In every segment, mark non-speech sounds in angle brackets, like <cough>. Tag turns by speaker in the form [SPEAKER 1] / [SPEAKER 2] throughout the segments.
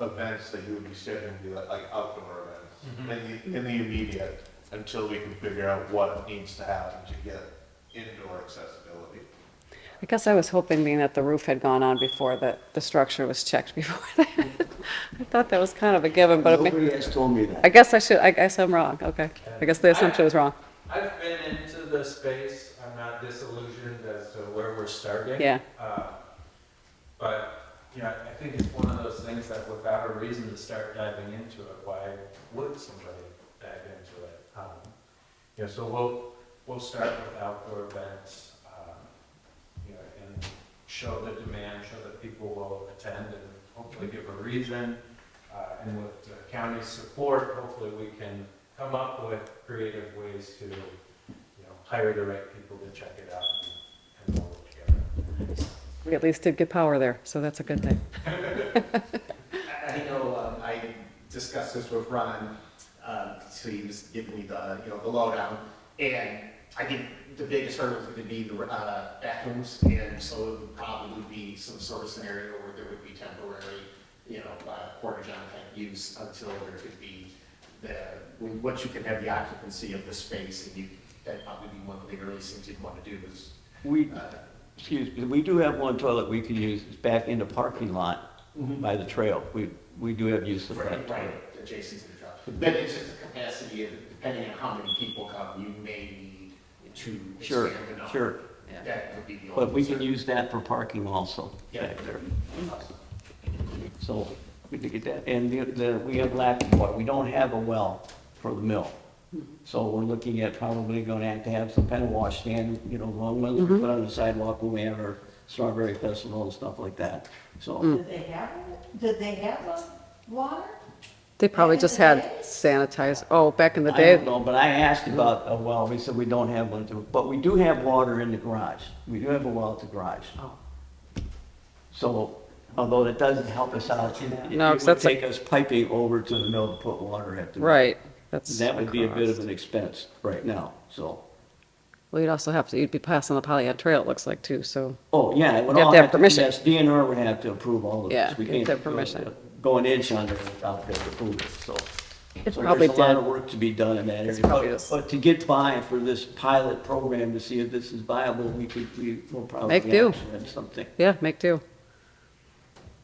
[SPEAKER 1] events that you would be scheduling, be like, like outdoor
[SPEAKER 2] Mhm.
[SPEAKER 1] events, in the, in the immediate, until we can figure out what needs to happen to get indoor accessibility.
[SPEAKER 3] I guess I was hoping, being that the roof had gone on before, that the structure was checked <laughs> before that. I thought that was kind of a given, but I mean-
[SPEAKER 4] Nobody has told me
[SPEAKER 3] I
[SPEAKER 4] that.
[SPEAKER 3] guess I should, I guess I'm wrong, okay. I guess the assumption was wrong,
[SPEAKER 2] I've been into the space. I'm not disillusioned as to where we're starting.
[SPEAKER 3] yeah.
[SPEAKER 2] Uh, But, you know, I think it's one of those things that without a reason to start diving into it, why would somebody dive into it? Um, You know, so we'll, we'll start with outdoor events, um, you know, and show the demand, show that people will attend and hopefully give a reason. Uh, And with the county's support, hopefully we can come up with creative ways to, you know, hire the right people to check it out and- and work together.
[SPEAKER 3] We at least did get power there, so that's a good thing.
[SPEAKER 5] I I know, um, I discussed this with Ron, um, so he was giving me the, you know, the lowdown. And I think the biggest hurdle is gonna be the, uh, bathrooms, and so it would probably be some sort of scenario where there would be temporary, you know, uh, porta john type use until there could be the, when, once you can have the occupancy of the space, and you, that'd probably be one of the earliest things you'd wanna do is,
[SPEAKER 4] We,
[SPEAKER 5] uh,
[SPEAKER 4] excuse me, we do have one toilet we could use, it's back in the parking lot
[SPEAKER 3] Mm-hmm.
[SPEAKER 4] by the trail. We, we do have use of that
[SPEAKER 5] Right, right,
[SPEAKER 4] toilet.
[SPEAKER 5] adjacent to the truck. But it's just the capacity, of depending on how many people come, you may need to
[SPEAKER 4] Sure,
[SPEAKER 5] expand the number.
[SPEAKER 4] sure.
[SPEAKER 5] That would be the only.
[SPEAKER 4] But we can
[SPEAKER 5] concern.
[SPEAKER 4] use that for parking also
[SPEAKER 5] Yeah.
[SPEAKER 4] back there. So we did get that. And the- the, we have lack of water. We don't have a well for the mill.
[SPEAKER 3] Mm-hmm.
[SPEAKER 4] So we're looking at probably going to have to have some kind of wash stand, you know, long ones
[SPEAKER 3] Mm-hmm.
[SPEAKER 4] we put on the sidewalk when we have our strawberry festival and stuff like that.
[SPEAKER 3] Mm.
[SPEAKER 4] So,
[SPEAKER 6] Did they have, did they have uh, water?
[SPEAKER 3] They probably just had sanitized, oh, back in the
[SPEAKER 4] I don't
[SPEAKER 3] day,
[SPEAKER 4] know, but I asked about a well. They said we don't have one, to- but we do have water in the garage. We do have a well at the garage. So although that doesn't help us out, it- it
[SPEAKER 3] No, 'cause
[SPEAKER 4] would
[SPEAKER 3] that's a-
[SPEAKER 4] take us piping over to the mill to put water at the. mill.
[SPEAKER 3] right, that's.
[SPEAKER 4] That would be a bit of an expense right now, so.
[SPEAKER 3] Well, you'd also have to, you'd be passing the Polyad Trail, it looks like, too, so,
[SPEAKER 4] Oh, yeah, it would
[SPEAKER 3] You have
[SPEAKER 4] all
[SPEAKER 3] to have
[SPEAKER 4] have to,
[SPEAKER 3] permission.
[SPEAKER 4] yes, DNR would have to approve all of
[SPEAKER 3] Yeah,
[SPEAKER 4] this. We
[SPEAKER 3] you have
[SPEAKER 4] can't
[SPEAKER 3] to have permission.
[SPEAKER 4] Go an inch under without their approval, so.
[SPEAKER 3] It
[SPEAKER 4] So
[SPEAKER 3] probably
[SPEAKER 4] There's a lot
[SPEAKER 3] did.
[SPEAKER 4] of work to be done in that area.
[SPEAKER 3] probably
[SPEAKER 4] But-
[SPEAKER 3] just-
[SPEAKER 4] But to get by for this pilot program to see if this is viable, we could, we will probably.
[SPEAKER 3] Make do.
[SPEAKER 4] actually have Something.
[SPEAKER 3] yeah, make do.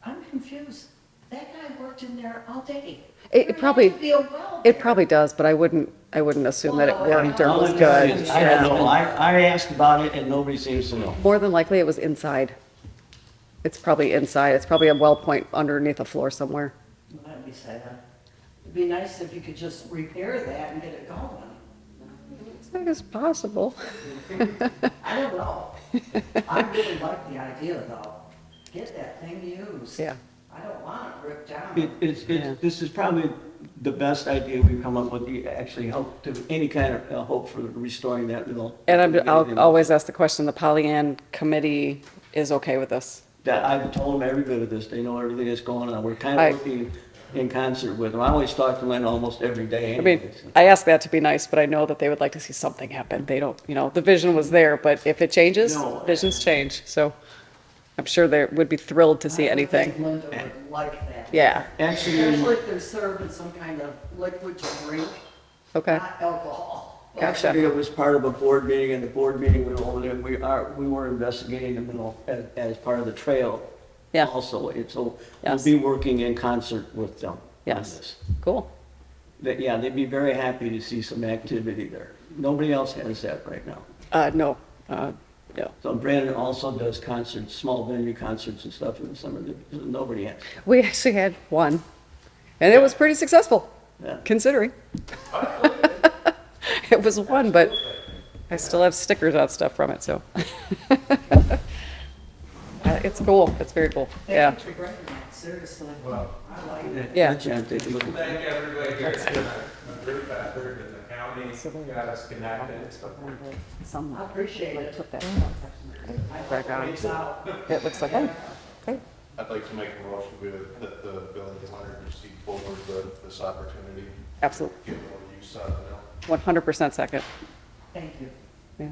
[SPEAKER 6] I'm confused. That guy worked in there all day.
[SPEAKER 3] It-
[SPEAKER 6] There
[SPEAKER 3] It probably,
[SPEAKER 6] had to be a well
[SPEAKER 3] it
[SPEAKER 6] there.
[SPEAKER 3] probably does, but I wouldn't, I wouldn't assume that it worked or
[SPEAKER 4] All
[SPEAKER 3] was
[SPEAKER 4] I'm gonna say
[SPEAKER 3] good.
[SPEAKER 4] is, I don't know, I, I asked about it and nobody seems to know.
[SPEAKER 3] More than likely, it was inside. It's probably inside, it's probably a well point underneath a floor somewhere.
[SPEAKER 7] That'd be sad. It'd be nice if you could just repair that and get it going.
[SPEAKER 3] It's like it's possible.
[SPEAKER 7] I don't know.
[SPEAKER 3] <laughs>
[SPEAKER 7] I really like the idea though. Get that thing used.
[SPEAKER 3] Yeah.
[SPEAKER 7] I don't want it ripped
[SPEAKER 4] It,
[SPEAKER 7] down.
[SPEAKER 4] it's,
[SPEAKER 3] Yeah.
[SPEAKER 4] it's, this is probably the best idea we've come up with, to actually help to, any kind of uh, hope for restoring that mill.
[SPEAKER 3] And I'm, I'll always ask the question, the Pollyann Committee is okay with this?
[SPEAKER 4] That, I've told them every bit of this, they know everything that's going on, we're kind
[SPEAKER 3] I-
[SPEAKER 4] of working in concert with them, I always talk to Lynn almost every day
[SPEAKER 3] I mean,
[SPEAKER 4] anyways.
[SPEAKER 3] I ask that to be nice, but I know that they would like to see something happen. They don't, you know, the vision was there, but if it changes,
[SPEAKER 4] No.
[SPEAKER 3] visions change, so I'm sure they would be thrilled to see
[SPEAKER 7] I would think
[SPEAKER 3] anything.
[SPEAKER 7] Linda would like that.
[SPEAKER 3] Yeah,
[SPEAKER 7] Especially
[SPEAKER 4] Actually,
[SPEAKER 7] if they're serving some kind of liquid to drink,
[SPEAKER 3] okay,
[SPEAKER 7] not alcohol.
[SPEAKER 4] actually,
[SPEAKER 3] gotcha.
[SPEAKER 4] it was part of a board meeting, and the board meeting went over there, we are, we were investigating the mill as, as part of the trail.
[SPEAKER 3] Yeah.
[SPEAKER 4] Also, and so we'll
[SPEAKER 3] Yes.
[SPEAKER 4] be working in concert with them. on
[SPEAKER 3] Yes.
[SPEAKER 4] this.
[SPEAKER 3] Cool.
[SPEAKER 4] That, yeah, they'd be very happy to see some activity there. Nobody else has that right now.
[SPEAKER 3] Uh, no, uh, no.
[SPEAKER 4] So Brandon also does concerts, small venue concerts and stuff in the summer that nobody has.
[SPEAKER 3] We actually had one, and it was pretty successful,
[SPEAKER 4] Yeah.
[SPEAKER 3] considering. <laughs> It was one, but I still have stickers on stuff from it, so. <laughs> Uh, It's cool, it's very cool, yeah.
[SPEAKER 7] Thank you for bringing that, seriously.
[SPEAKER 2] Well-
[SPEAKER 7] I like it.
[SPEAKER 3] Yeah.
[SPEAKER 4] That's it, they do.
[SPEAKER 2] Thank everybody here, it's been a a group effort in the county, got us connected.
[SPEAKER 7] I appreciate it.
[SPEAKER 3] Background.
[SPEAKER 7] It's out.
[SPEAKER 3] It looks like, oh,
[SPEAKER 1] I'd like to make a motion with, that the village wanted to see forward the, this opportunity,
[SPEAKER 3] absolutely,
[SPEAKER 1] get more use out of it.
[SPEAKER 3] 100% second.
[SPEAKER 7] Thank you.
[SPEAKER 3] Yeah.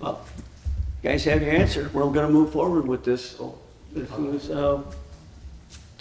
[SPEAKER 4] Well, you guys have your answer. We're gonna move forward with this. so As soon as, uh,